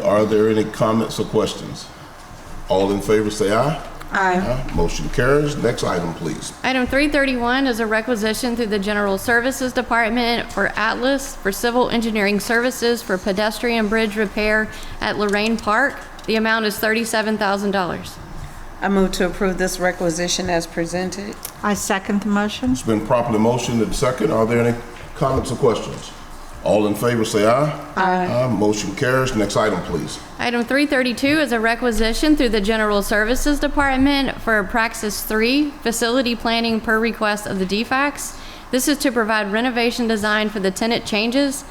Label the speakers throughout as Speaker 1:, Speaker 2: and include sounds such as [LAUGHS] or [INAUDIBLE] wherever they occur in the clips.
Speaker 1: Are there any comments or questions? All in favor, say aye.
Speaker 2: Aye.
Speaker 1: Aye. Motion carries. Next item, please.
Speaker 3: Item 331 is a requisition through the General Services Department for Atlas for civil engineering services for pedestrian bridge repair at Lorraine Park. The amount is $37,000.
Speaker 2: I move to approve this requisition as presented.
Speaker 4: I second the motion.
Speaker 1: It's been properly motioned and second. Are there any comments or questions? All in favor, say aye. Aye. Motion carries. Next item, please.
Speaker 3: Item 332 is a requisition through the General Services Department for Praxis 3 facility planning per request of the DFAX. This is to provide renovation design for the tenant changes.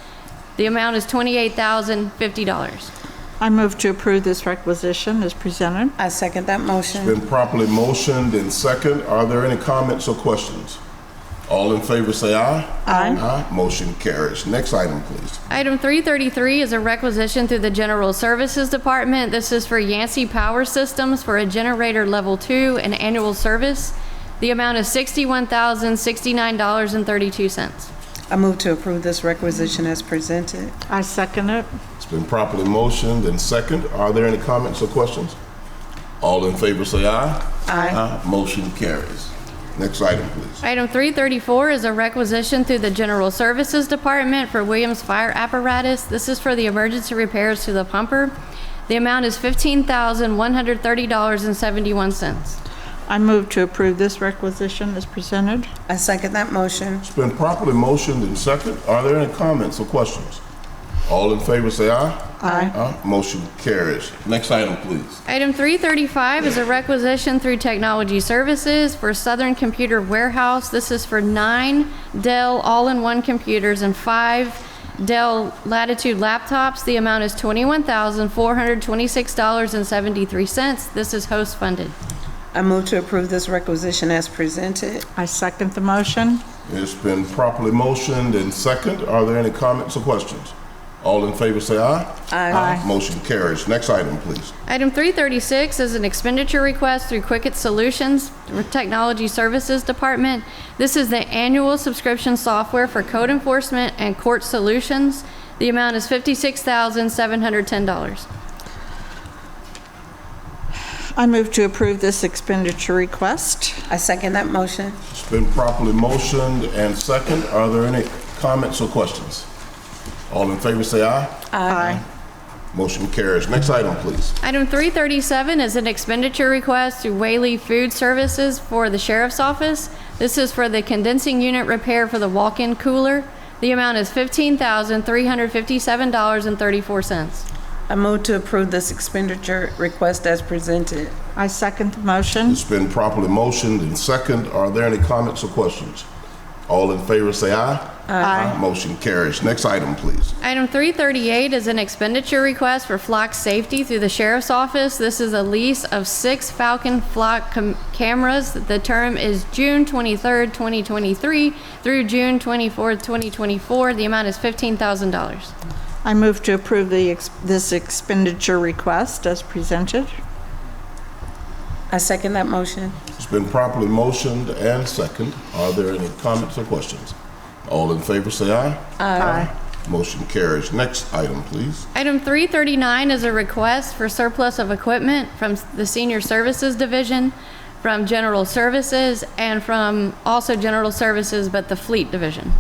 Speaker 3: The amount is $28,050.
Speaker 4: I move to approve this requisition as presented.
Speaker 2: I second that motion.
Speaker 1: Been properly motioned and second. Are there any comments or questions? All in favor, say aye.
Speaker 4: Aye.
Speaker 1: Aye. Motion carries. Next item, please.
Speaker 3: Item 333 is a requisition through the General Services Department. This is for Yancey Power Systems for a generator level two and annual service. The amount is $61,069.32.
Speaker 2: I move to approve this requisition as presented.
Speaker 4: I second it.
Speaker 1: It's been properly motioned and second. Are there any comments or questions? All in favor, say aye. Aye. Motion carries. Next item, please.
Speaker 3: Item 334 is a requisition through the General Services Department for Williams Fire Apparatus. This is for the emergency repairs to the pumper. The amount is $15,130.71.
Speaker 4: I move to approve this requisition as presented.
Speaker 2: I second that motion.
Speaker 1: It's been properly motioned and second. Are there any comments or questions? All in favor, say aye.
Speaker 4: Aye.
Speaker 1: Aye. Motion carries. Next item, please.
Speaker 3: Item 335 is a requisition through Technology Services for Southern Computer Warehouse. This is for nine Dell all-in-one computers and five Dell Latitude laptops. The amount is $21,426.73. This is host-funded.
Speaker 2: I move to approve this requisition as presented.
Speaker 4: I second the motion.
Speaker 1: It's been properly motioned and second. Are there any comments or questions? All in favor, say aye.
Speaker 2: Aye.
Speaker 1: Motion carries. Next item, please.
Speaker 3: Item 336 is an expenditure request through Quicket Solutions Technology Services Department. This is the annual subscription software for code enforcement and court solutions. The amount is $56,710.
Speaker 4: I move to approve this expenditure request.
Speaker 2: I second that motion.
Speaker 1: It's been properly motioned and second. Are there any comments or questions? All in favor, say aye.
Speaker 4: Aye.
Speaker 1: Motion carries. Next item, please.
Speaker 3: Item 337 is an expenditure request through Whaley Food Services for the Sheriff's Office. This is for the condensing unit repair for the walk-in cooler. The amount is $15,357.34.
Speaker 2: I move to approve this expenditure request as presented.
Speaker 4: I second the motion.
Speaker 1: It's been properly motioned and second. Are there any comments or questions? All in favor, say aye. Aye. Motion carries. Next item, please.
Speaker 3: Item 338 is an expenditure request for flock safety through the sheriff's office. This is a lease of six Falcon flock cam- cameras. The term is June 23rd, 2023 through June 24th, 2024. The amount is $15,000.
Speaker 4: I move to approve the, ex- this expenditure request as presented.
Speaker 2: I second that motion.
Speaker 1: It's been properly motioned and second. Are there any comments or questions? All in favor, say aye. Aye. Motion carries. Next item, please.
Speaker 3: Item 339 is a request for surplus of equipment from the Senior Services Division, from General Services, and from also General Services, but the Fleet Division.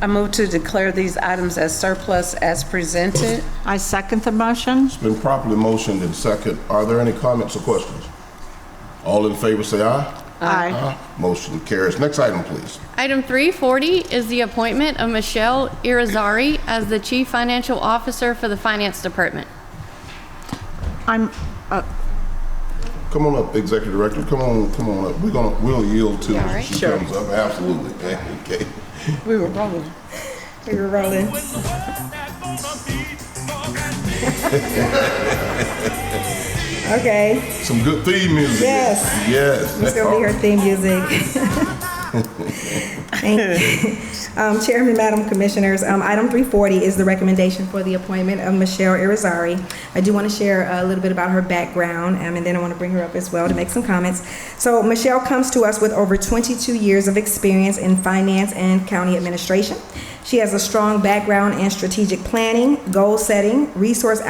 Speaker 2: I move to declare these items as surplus as presented.
Speaker 4: I second the motion.
Speaker 1: It's been properly motioned and second. Are there any comments or questions? All in favor, say aye.
Speaker 4: Aye.
Speaker 1: Aye. Motion carries. Next item, please.
Speaker 3: Item 340 is the appointment of Michelle Irizarry as the Chief Financial Officer for the Finance Department.
Speaker 4: I'm, uh,
Speaker 1: Come on up, Executive Director. Come on, come on up. We're gonna, we'll yield to
Speaker 3: You all
Speaker 1: her.
Speaker 3: right?
Speaker 1: She comes up, absolutely. [LAUGHS] Okay.
Speaker 2: We were rolling. We were rolling.
Speaker 5: Okay,
Speaker 1: Some good theme music.
Speaker 5: Yes.
Speaker 1: Yes.
Speaker 5: it's gonna be her theme music. Thank you. Um, Chairman, Madam Commissioners, um, item 340 is the recommendation for the appointment of Michelle Irizarry. I do want to share a little bit about her background, um, and then I want to bring her up as well to make some comments. So Michelle comes to us with over 22 years of experience in finance and county administration. She has a strong background in strategic planning, goal setting, resource